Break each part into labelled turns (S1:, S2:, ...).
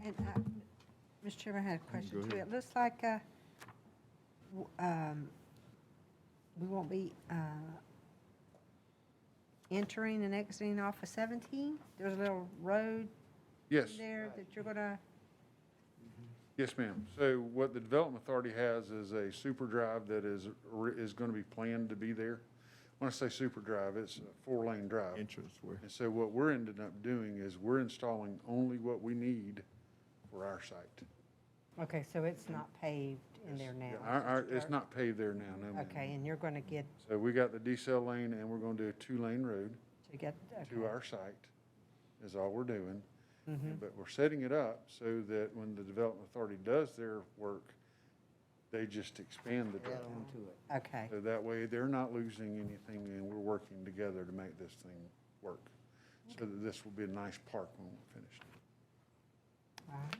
S1: uh, Chairman, I had a question
S2: go
S1: too.
S2: ahead.
S1: It looks like, uh, w- um, we won't be, uh, entering and exiting off of seventeen? There's a little road
S2: Yes,
S1: there that you're gonna,
S2: yes, ma'am. So what the Development Authority has is a super drive that is, re- is going to be planned to be there. When I say super drive, it's a four-lane drive.
S3: entrance where,
S2: And so what we're ended up doing is we're installing only what we need for our site.
S1: okay, so it's not paved in there now?
S2: Yeah, Our, our,
S1: just
S2: it's
S1: dirt.
S2: not paved there now, no, ma'am.
S1: Okay, and you're gonna get,
S2: So we got the decel lane and we're going to do a two-lane road
S1: to get,
S2: to
S1: okay.
S2: our site is all we're doing.
S1: Mhm.
S2: But we're setting it up so that when the Development Authority does their work, they just expand the
S4: Add
S2: drive.
S4: on to it.
S1: Okay,
S2: So that way, they're not losing anything, and we're working together to make this thing work. So that this will be a nice park when we're finished.
S1: all right.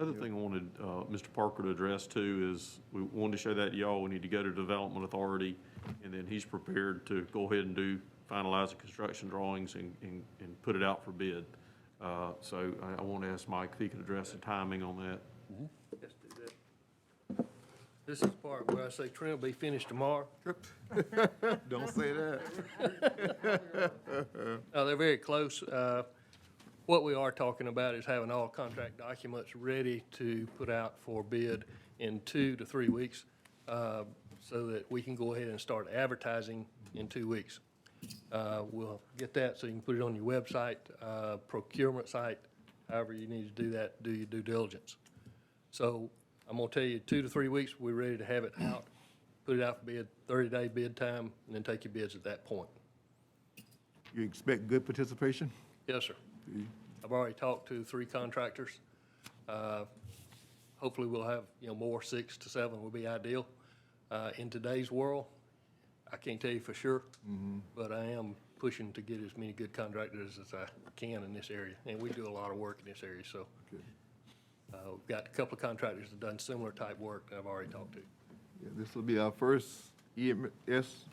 S5: Other thing I wanted uh, Mr. Parker to address too is, we wanted to show that to y'all, we need to go to Development Authority, and then he's prepared to go ahead and do, finalize the construction drawings and, and, and put it out for bid. Uh, So I, I want to ask Mike if he could address the timing on that.
S6: Let's do that. This is part where I say trim will be finished tomorrow.
S3: don't say that.
S6: Uh, they're very close. Uh, what we are talking about is having all contract documents ready to put out for bid in two to three weeks, uh, so that we can go ahead and start advertising in two weeks. Uh, we'll get that so you can put it on your website, uh, procurement site, however you need to do that, do your due diligence. So I'm gonna tell you, two to three weeks, we're ready to have it out, put it out for bid, thirty-day bid time, and then take your bids at that point.
S3: You expect good participation?
S6: Yes, sir. I've already talked to three contractors. Uh, Hopefully, we'll have, you know, more, six to seven would be ideal. Uh, In today's world, I can't tell you for sure, but I am pushing to get as many good contractors as I can in this area, and we do a lot of work in this area, so.
S3: Good.
S6: uh, We've got a couple of contractors that done similar type work that I've already talked to.
S3: Yeah, This will be our first EMS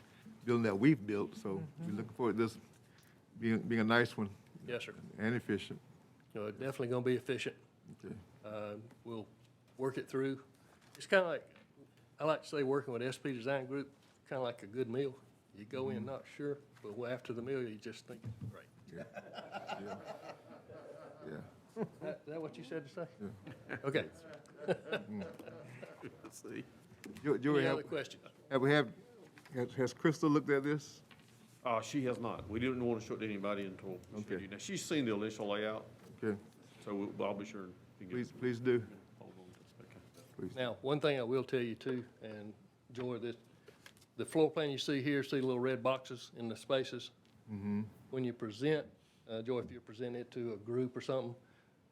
S3: building that we've built, so we're looking forward to this being, being a nice one
S6: Yes, sir.
S3: and efficient.
S6: You know, definitely gonna be efficient.
S3: Okay.
S6: Uh, We'll work it through. It's kind of like, I like to say, working with SP Design Group, kind of like a good meal. You go in not sure, but well, after the meal, you just think, great.
S3: Yeah.
S6: That- Is that what you said to say? Okay.
S5: Let's see.
S3: Do, do we
S6: Any
S3: have,
S6: other questions?
S3: have we have, has, has Crystal looked at this?
S5: Uh, she has not, we didn't want to show it to anybody until she
S3: Okay.
S5: did. Now, she's seen the initial layout,
S3: Okay,
S5: so we'll- I'll be sure. to get-
S3: please, please do.
S5: Hold on just a second.
S6: Now, one thing I will tell you too, and Joy, this, the floor plan you see here, see the little red boxes in the spaces? When you present, uh, Joy, if you present it to a group or something,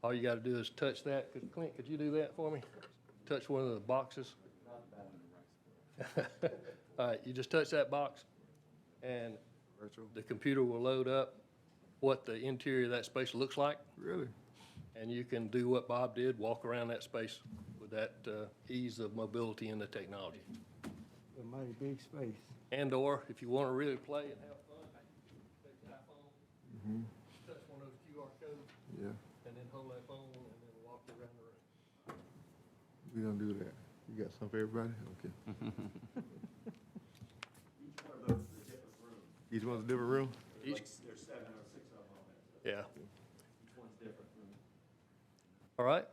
S6: all you gotta do is touch that. Could- Clint, could you do that for me? Touch one of the boxes? All right, you just touch that box and the computer will load up what the interior of that space looks like.
S3: Really?
S6: And you can do what Bob did, walk around that space with that uh, ease of mobility and the technology.
S4: A mighty big space.
S6: And/or if you want to really play and have fun, take the iPhone,
S4: Mm-hmm.
S6: touch one of those QR codes,
S3: Yeah,
S6: and then hold that phone and then walk around the room.
S3: we gonna do that. You got something for everybody? Okay. Each one's a different room?
S6: Each- Yeah. All right,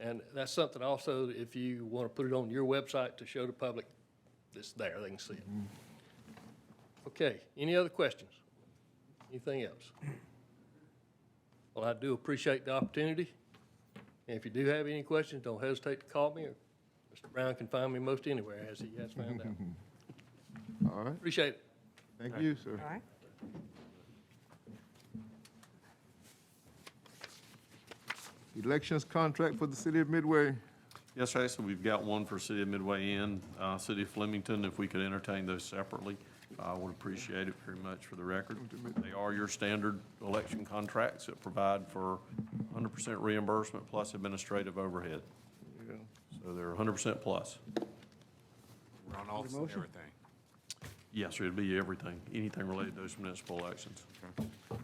S6: and that's something also, if you want to put it on your website to show the public, it's there, they can see it. Okay, any other questions? Anything else? Well, I do appreciate the opportunity, and if you do have any questions, don't hesitate to call me, or Mr. Brown can find me most anywhere, as he has found out.
S3: All right,
S6: Appreciate it.
S3: thank you, sir.
S1: All right.
S3: Elections contract for the city of Midway.
S5: Yes, sir, so we've got one for City of Midway Inn, uh, City of Flemington, if we could entertain those separately, I would appreciate it very much for the record. They are your standard election contracts that provide for 100% reimbursement plus administrative overhead, so they're 100% plus.
S7: We're on all, everything.
S5: Yes, sir, it'd be everything, anything related to those municipal elections.
S7: Okay.